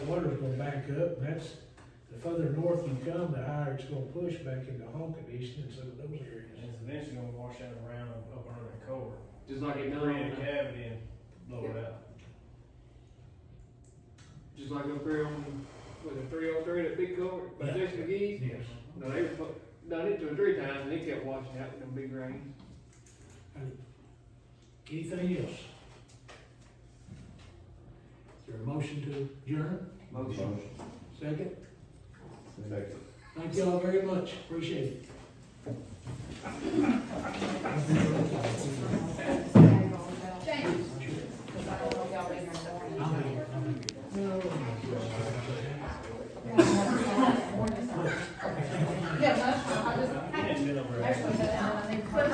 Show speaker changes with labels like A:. A: water's gonna back up, and that's, the further north you come, the higher it's gonna push back into Honkin East and some of those areas.
B: And it's eventually gonna wash out around up under that culvert,
C: Just like it done
B: create a
C: on,
B: cavity and blow it out.
C: just like up there on, was it three oh three, that big culvert, by
A: Yeah.
C: Jackson McGee's?
A: Yes.
C: No, they were fu- done it two or three times, and it kept washing out with them big rains.
A: Anything else? Is there a motion to adjourn?
D: Motion.
A: Second?
D: Second.
A: Thank y'all very much, appreciate it.